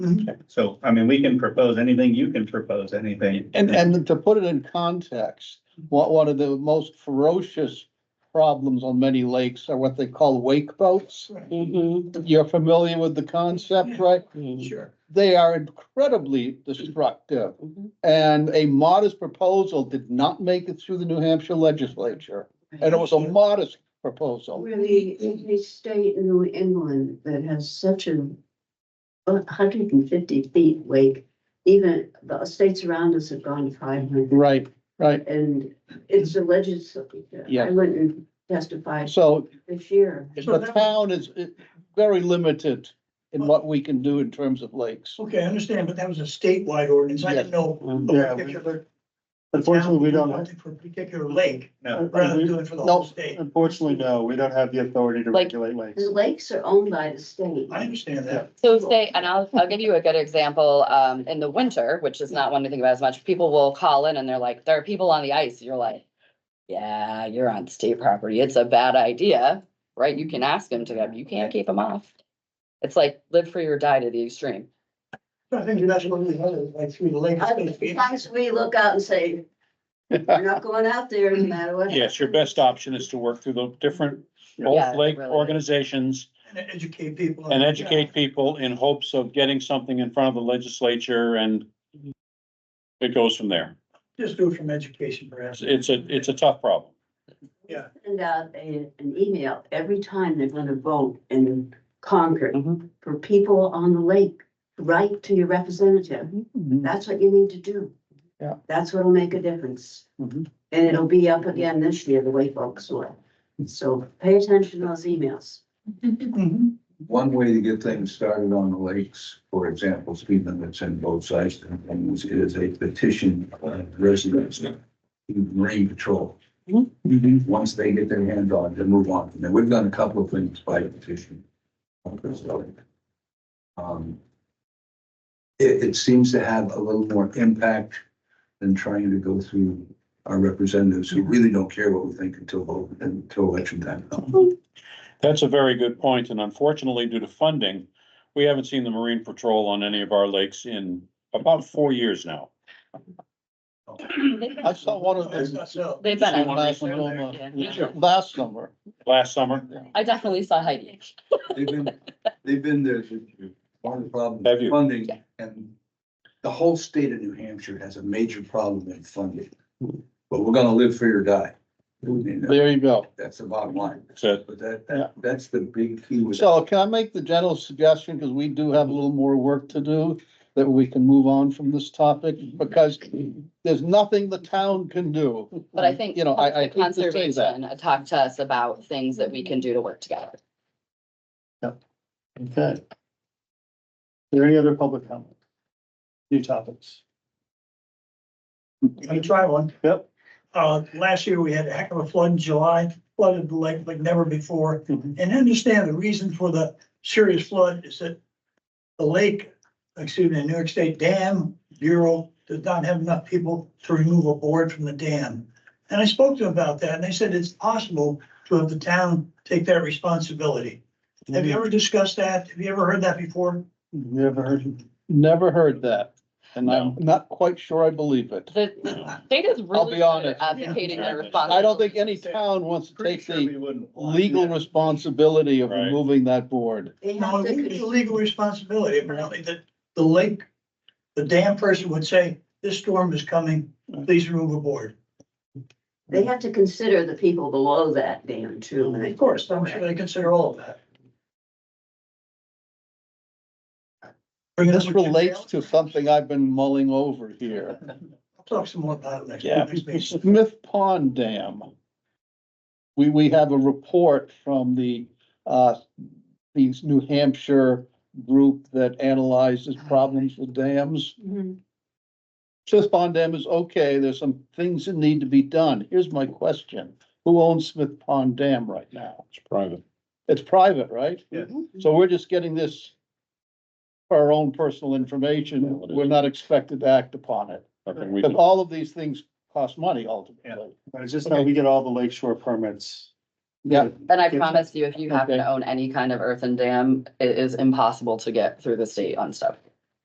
Mm-hmm. So, I mean, we can propose anything, you can propose anything. And, and to put it in context, one, one of the most ferocious problems on many lakes are what they call wake boats. Mhm. You're familiar with the concept, right? Mm-hmm. Sure. They are incredibly destructive. Mhm. And a modest proposal did not make it through the New Hampshire legislature. And it was a modest proposal. Really, any state in New England that has such a hundred and fifty feet wake, even the states around us have gone five hundred. Right, right. And it's a legislature. Yeah. I went and testified So this year. So the that- town is eh, very limited in what we can do in terms of lakes. Okay, I understand, but that was a statewide ordinance. I didn't know. a Yeah. particular Unfortunately, we don't, town wanted have- For a particular lake, No, rather than doing it for the whole No. state. unfortunately, no, we don't have the authority to Like- regulate lakes. The lakes are owned by the state. I understand that. So say, and I'll, I'll give you a good example, um, in the winter, which is not one to think about as much, people will call in and they're like, there are people on the ice, you're like. Yeah, you're on state property, it's a bad idea, right? You can ask them to go, you can't keep them off. It's like live free or die to the extreme. I think that's what we had, like through the lake. it's supposed to be- Sometimes we look out and say, we're not going out there no matter what. Yes, your best option is to work through the different, Yeah, both lake really. organizations And educate people. on and the- educate people in hopes of getting something in front of the legislature and it goes from there. Just do it from education perhaps. It's, it's a, it's a tough problem. Send out a, an email every time they're gonna vote in Concord Mhm. for people on the lake. Write to your representative. Mhm. That's what you need to do. Yeah. That's what'll make a difference. Mhm. And it'll be up again this year, the way folks will. So pay attention to those emails. Mhm. One way to get things started on the lakes, for example, speed limits in both sides and things, is a petition of residents to Marine Patrol. Once they get their hand on, it, they move on. Now, we've done a couple of things by petition. on this lake. Um, It, it seems to have a little more impact than trying to go through our representatives who really don't care what we think until, vote- until election time. That's a very good point, and unfortunately, due to funding, we haven't seen the Marine Patrol on any of our lakes in about four years now. I saw one of That's them. not so. They've been, on- Last uh, summer, Yeah. last summer. Last summer, I definitely saw Heidi. They've been, they've been there, one of the problems. Have you? Funding, Yeah. and the whole state of New Hampshire has a major problem in funding. Hmm. But we're gonna live free or die. I mean, There you go. That's the bottom line, so but that, that, that's the big key with. So can I make the general suggestion, because we do have a little more work to do, that we can move on from this topic, because there's nothing the town can do. But I think. Mm, You know, I, I hate to say that. Conservation talked to us about things that we can do to work together. Okay. Are there any other public comment? New topics? Let me try one. Yep. Uh, last year we had a heck of a flood in July, flooded the lake like never before. Mhm. And I understand the reason for the serious flood is that the lake, excuse me, the New York State Dam Bureau does not have enough people to remove a board from the dam. And I spoke to them about that and they said it's possible to have the town take that responsibility. Have you ever discussed that? Have you ever heard that before? Never heard of Never heard that, and I'm not quite sure I believe it. The state is I'll really be good at honest. advocating their responsibility. I don't think any town wants to pretty take sure we the wouldn't. want legal that. responsibility of Right. removing that board. They No, have it's a to, legal responsibility, apparently, that the lake, the dam person would say, this storm is coming, please remove a board. they have to consider the people below that dam too. Of course, I'm sure they consider all of that. This relates to something I've been mulling over here. I'll Talk some more about it Yeah, next- next meeting. Smith Pond Dam. We, we have a report from the, uh, these New Hampshire group that analyzes Ah. problems with dams. Smith Pond Dam is okay, there's some things that need to be done. Here's my question. Who owns Smith Pond Dam right now? it's private. It's private, right? Yes. Mm-hmm. So we're just getting this for our own personal information. Yeah, it is. We're not expected to act upon it. Nothing we But can- all of these things cost money ultimately. that. It's just how we get all the lake shore permits. Yeah. And I promise you, if you happen Okay. to own any kind of earthen dam, it is impossible to get through the state on stuff.